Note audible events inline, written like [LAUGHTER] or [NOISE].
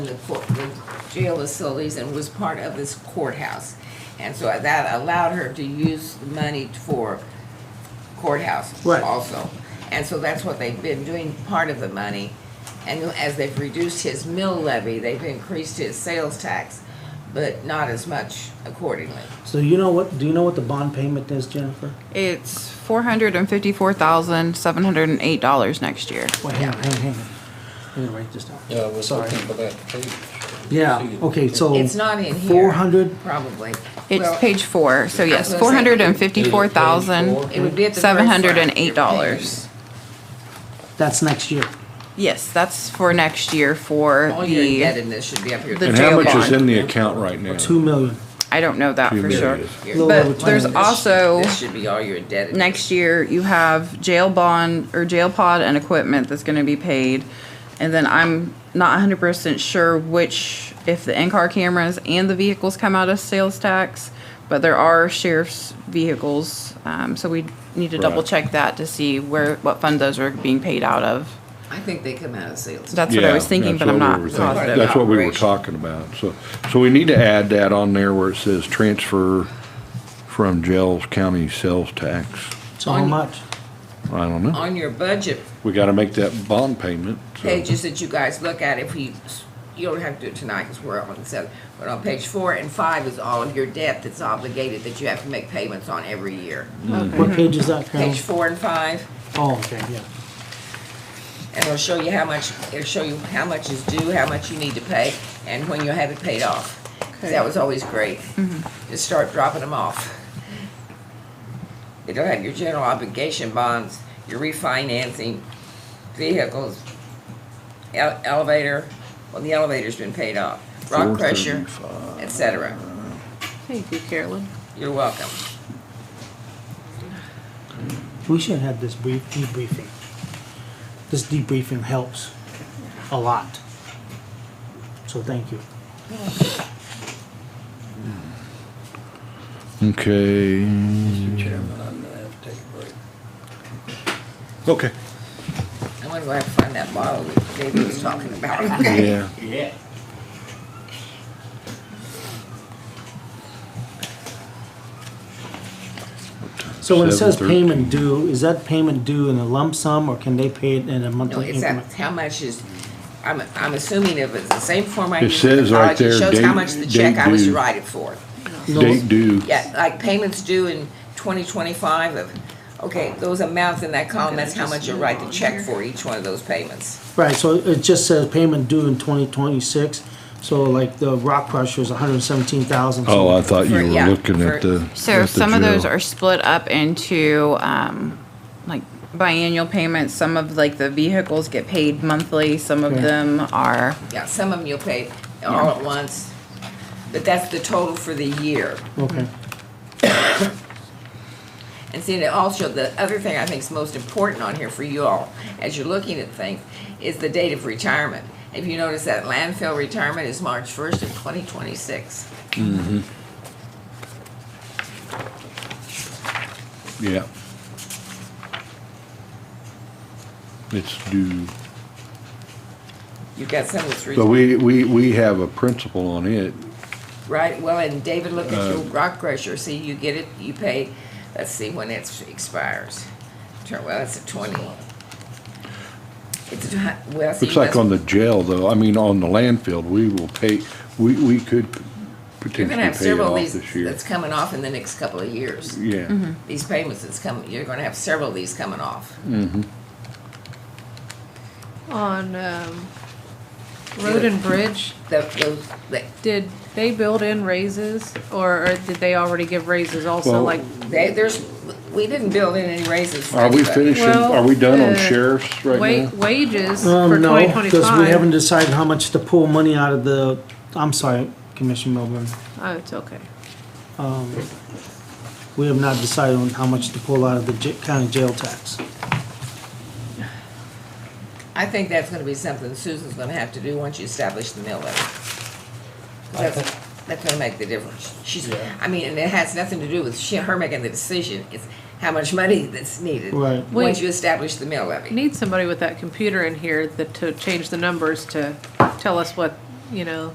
the court, the jail facilities and was part of this courthouse. And so that allowed her to use the money for courthouse Right. also. And so that's what they've been doing, part of the money. And as they've reduced his mill levy, they've increased his sales tax, but not as much accordingly. So you know what, do you know what the bond payment is, Jennifer? It's four hundred and fifty-four thousand, seven hundred and eight dollars next year. Wait, hang on, hang on, hang on. I didn't write this down. Yeah, I was Sorry. looking for that page. Yeah, okay, so. It's not in here. Four hundred, Probably. Well, It's page four, so yes, I was gonna four say- hundred and fifty-four Is thousand, It would be at the very seven front. hundred and eight dollars. that's next year. Yes, that's for next year for All your the, indebtedness should be up here. the And how jail much is bond. in the account right now? Two million. I don't know that Two for sure. million. Your- Little But over two there's million. also, This should be all your indebtedness. next year, you have jail bond or jail pod and equipment that's gonna be paid. And then I'm not hundred percent sure which, if the in-car cameras and the vehicles come out of sales tax, but there are sheriff's vehicles, um, so we need to Right. double check that to see where, what fund those are being paid out of. I think they come out of sales. That's what I Yeah, was thinking, but that's I'm what we not were thinking. positive. That's what we were Operation. talking about, so, so we need to add that on there where it says transfer from jails county sales tax. So how much? I don't know, On your budget we gotta make that bond payment, so. pages that you guys look at, if you, you don't have to do it tonight because we're on seven, but on page four and five is all of your debt that's obligated that you have to make payments on every year. What page is that, Carol? Page four and five, Oh, okay, yeah. and it'll show you how much, it'll show you how much is due, how much you need to pay, and when you'll have it paid off. 'Cause That was always great. Just start dropping them off. It'll have your general obligation bonds, your refinancing, vehicles, ele- elevator, well, the elevator's been paid off, rock pressure, 435. et cetera. Thank you, Carolyn. You're welcome. We should have this brief debriefing. This debriefing helps a lot. So thank you. Okay, Mr. Chairman, I'm gonna have to take a break. okay, I'm gonna go have to find that bottle that David was talking about, [LAUGHS] okay? yeah, Yeah. So when it says 7:13. payment due, is that payment due in a lump sum or can they pay it in a No, monthly it's increment? that, how much is, I'm, I'm assuming if it's the same form I It used in says right college, it there, shows how date- much the date check I was to due. write it for. No, date due, Yeah, like payments due in twenty twenty-five of, okay, those amounts in that column, that's how much you'll write the check for each one of those payments. Right, so it just says payment due in twenty twenty-six, so like the rock crusher is hundred and seventeen thousand. oh, I thought you For- were yeah, looking at for- the. So at the some of those jail. are split up into, um, like biannual payments, some of like the vehicles get paid monthly, some of Okay. them are, Yeah, some of them you'll pay all at once, but that's the total for the year. Okay, And see, and also, the other thing I think is most important on here for you all, as you're looking at things, is the date of retirement. If you notice that landfill retirement is March first of twenty twenty-six. Yeah. It's due. You've got some that's So retired, we, we, we have a principle on it. right? Well, and David, look at your Uh, rock crusher, see, you get it, you pay, let's see when it expires. Turn- Well, that's a twenty. It's, a hu- well, see. Looks like on the jail though, I mean, on the landfill, we will pay, we, we could You're gonna potentially have pay it several of off these this year. that's Mm-hmm. coming off in the next couple of years. Mm-hmm. Yeah, These payments that's coming, you're gonna have several of these coming off. on um, Road and Bridge, The, those, the- did they build in raises or, or did they already give raises also Well- like? they, there's, we didn't build in any raises. for are we anybody. finishing, Well, are we done on uh, sheriffs right Wa- now? wages for um, twenty no, because we haven't twenty-five? decided how much to pull money out of the, I'm sorry, Commissioner Melbourne. Oh, it's okay. We have not decided on how much to pull out of the j- county jail tax. I think that's gonna be something Susan's gonna have to do once you establish the mill levy. That's, that's gonna make the difference. She's, I mean, and it has nothing to do with she, her making the decision, it's how much money that's needed. Right. Once Wait. you establish the mill levy. Need somebody with that computer in here that, to change the numbers to tell us what you know,